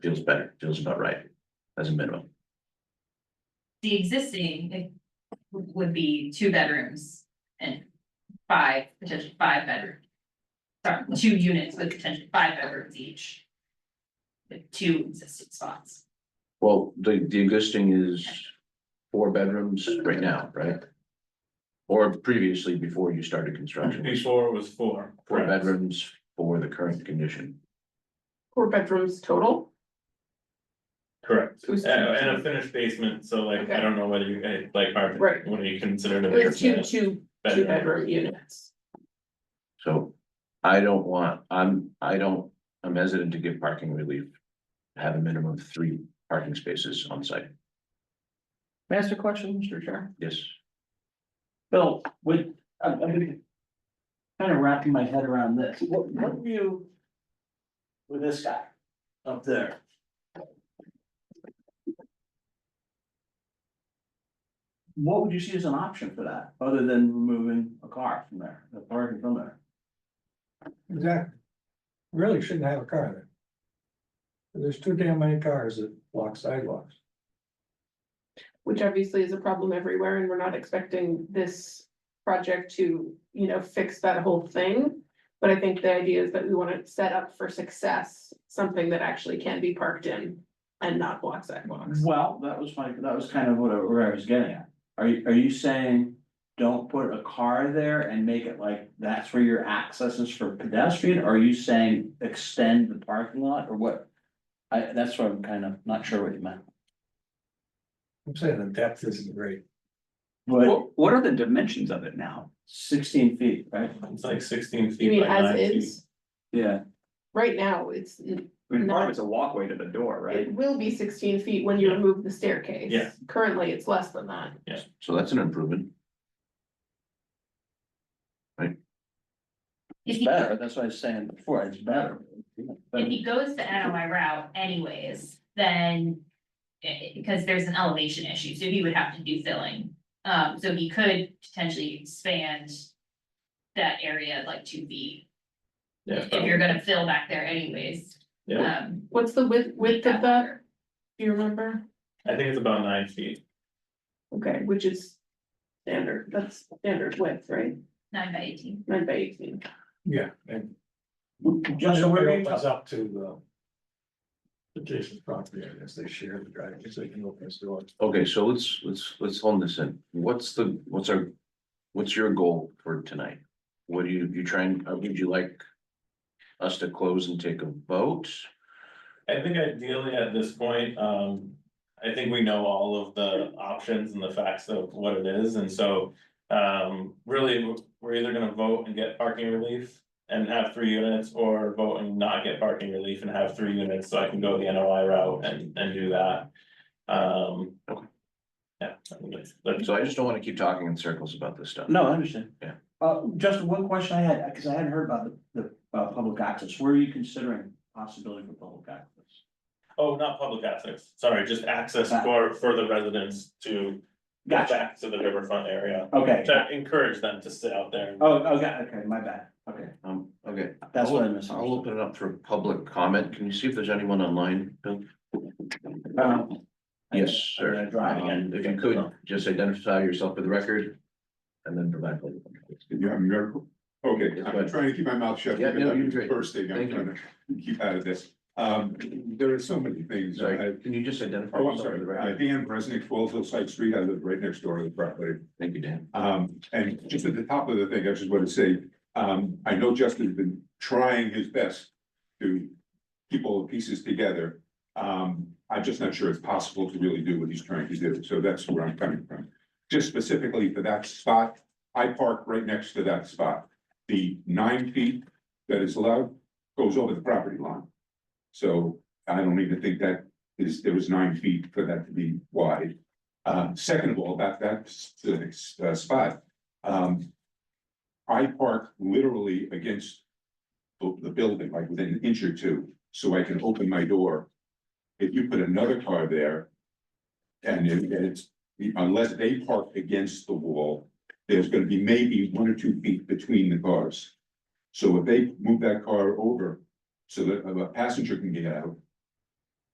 feels better, feels about right, as a minimum. The existing it would be two bedrooms and five, potentially five bedroom. Sorry, two units with potentially five bedrooms each. With two existing spots. Well, the, the existing is four bedrooms right now, right? Or previously, before you started construction, was Before it was four. four correct. bedrooms for the current condition. Four bedrooms total? Correct, It was and, two. and a finished basement, so like, I Okay. don't know whether you, eh, like, are, Right. what do you consider to It be? a was two, two, two bedroom? bedroom units. So I don't want, I'm, I don't, I'm hesitant to give parking relief. Have a minimum of three parking spaces on site, May I ask a question, Mr. Chair? yes. Bill, with, I'm, I'm. Kind of wrapping my head around this, what, what view? With this guy up there? What would you see as an option for that, other than removing a car from there, the parking from there? Exactly. Really shouldn't have a car there. There's too damn many cars that block sidewalks. Which obviously is a problem everywhere and we're not expecting this project to, you know, fix that whole thing. But I think the idea is that we want to set up for success, something that actually can be parked in and not block sidewalks. Well, that was my, that was kind of what I, where I was getting at. Are you, are you saying, don't put a car there and make it like, that's where your access is for pedestrian? Are you saying extend the parking lot or what? I, that's what I'm kind of not sure what you meant. I'm saying the depth isn't great. But What, what are the dimensions of it now? sixteen feet, right? It's like sixteen You feet mean by as nine feet. is, Yeah. right now, it's, it I mean, part of it's a walkway to the door, right? will be sixteen feet when you Yeah. remove the staircase. Yeah. Currently, it's less than that. So that's an improvement. If It's he, better, that's what I was saying before, it's better. if he goes the NOI route anyways, then. eh, because there's an elevation issue, so he would have to do filling. Um, so he could potentially expand. That area like two feet, Yeah, if you're gonna fill back there anyways. Yeah. um, What's the width, width of that? after. Do you remember? I think it's about nine feet, Okay, which is standard, that's standard width, right? Nine by eighteen. Nine by eighteen. Yeah. And Justin, where are you- opens up to the adjacent property, I guess they share the driveway, so they can open this door. Okay, so let's, let's, let's hone this in. What's the, what's our, what's your goal for tonight? What do you, you trying, uh, would you like us to close and take a vote? I think ideally at this point, um, I think we know all of the options and the facts of what it is, and so. Um, really, we're- we're either gonna vote and get parking relief and have three units, or vote and not get parking relief and have three units, so I can go the NOI route and, and do that. Um. Okay. Yeah, I think that's, that's, So I just don't want to keep talking in circles about this stuff. No, I understand. Yeah. Uh, Justin, one question I had, because I hadn't heard about the, the, uh, public access, where are you considering possibility for public access? oh, not public access, sorry, just access for, for the residents to. get Gotcha. Back to the riverfront area, Okay, to encourage them to sit out there. and- oh, okay, okay, my bad, okay, Um, okay, that's what I I'll misunderstood. open it up for public comment. Can you see if there's anyone online, Bill? Um, Yes, I'm sir. gonna drive Um, again. Oh. If you could, just identify yourself for the record and then provide. public comment. You have your, okay, Yes, go I'm ahead. trying to keep my mouth shut. Yeah, because no, you're that's the great. First thing I'm Thank you. trying to keep out of this. Um, there are so many things. that I, Sorry, can you just identify oh, I'm yourself for sorry, the Uh, record? Dan Bresnick, twelve Hillside Street, I live right next door to the property. Thank you, Dan. Um, and just at the top of the thing, I just want to say, um, I know Justin's been trying his best to keep all the pieces together. Um, I'm just not sure it's possible to really do what he's trying to do, so that's where I'm coming from. Just specifically for that spot, I park right next to that spot. The nine feet that is allowed goes over the property line. So I don't even think that is, there was nine feet for that to be wide. Uh, second of all, about that specific s- uh, spot, um. I park literally against the, the building, like within an inch or two, so I can open my door. If you put another car there. And it- and it's, unless they park against the wall, there's gonna be maybe one or two feet between the cars. So if they move that car over so that a uh, passenger can get out,